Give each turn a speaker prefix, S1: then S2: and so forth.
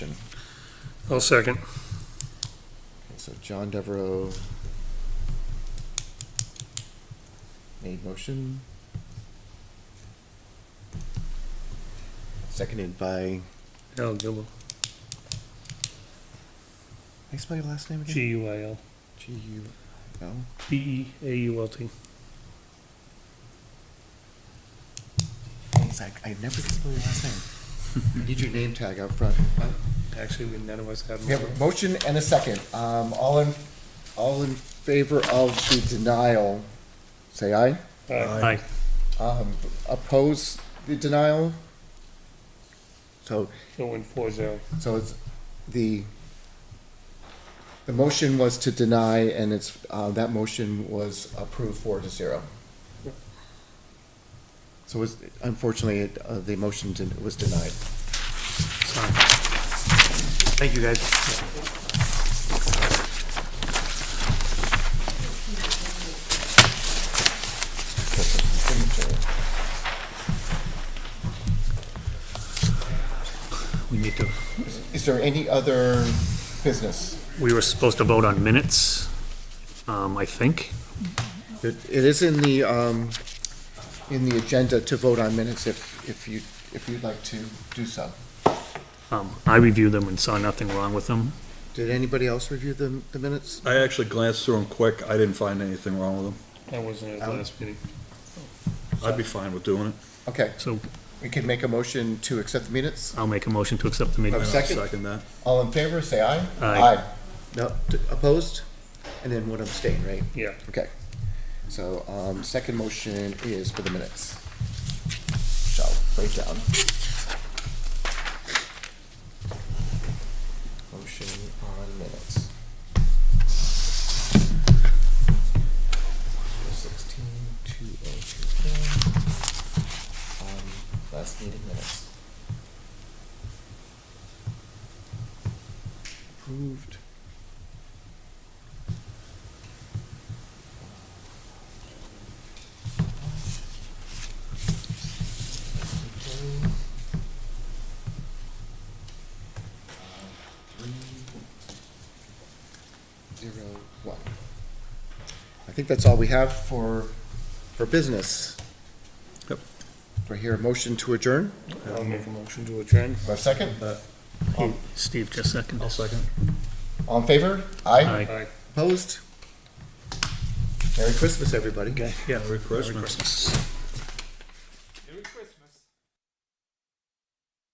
S1: I'll second.
S2: Okay, So John Devereaux made motion. Seconded by,
S1: Al Gilbo,
S2: how you spell your last name again?
S1: G U I L,
S2: G U L.
S1: B E A U L T.
S2: He's like, I never can spell your last name. I need your name tag out front.
S1: Actually, we- none of us have.
S2: We have a motion and a second. Um, all in, all in favor of the denial, say aye.
S1: Aye.
S2: Um, oppose the denial? So
S1: So win four zero.
S2: So it's, the, the motion was to deny, and it's, uh, that motion was approved four to zero. So it's, unfortunately, it, uh, the motion did- was denied.
S1: Thank you, guys. We need to,
S2: Is there any other business?
S1: we were supposed to vote on minutes, um, I think.
S2: It, it is in the, um, in the agenda to vote on minutes if, if you, if you'd like to do so.
S1: Um, I reviewed them and saw nothing wrong with them.
S2: Did anybody else review the, the minutes?
S3: I actually glanced through them quick. I didn't find anything wrong with them.
S1: I wasn't
S2: at last
S1: meeting.
S3: I'd be fine with doing it.
S2: Okay,
S1: So
S2: we can make a motion to accept the minutes.
S1: I'll make a motion to accept the meeting.
S2: Okay.
S3: I'll
S2: Second.
S3: Second that.
S2: All in favor, say aye.
S1: Aye.
S2: No, t- opposed? And then one abstain, right?
S1: Yeah.
S2: Okay. So, um, second motion is for the minutes. Shall break down. Motion on minutes. Sixteen, two oh two four. Um, last meeting minutes. Approved. Zero, one. I think that's all we have for, for business.
S3: Yep.
S2: Do I hear a motion to adjourn?
S1: I'll make a motion to adjourn.
S2: A second?
S1: Steve just seconded.
S3: I'll second.
S2: All in favor? Aye.
S1: Aye.
S2: Opposed? Merry Christmas, everybody.
S1: Okay, yeah.
S3: Merry Christmas.
S1: Christmas.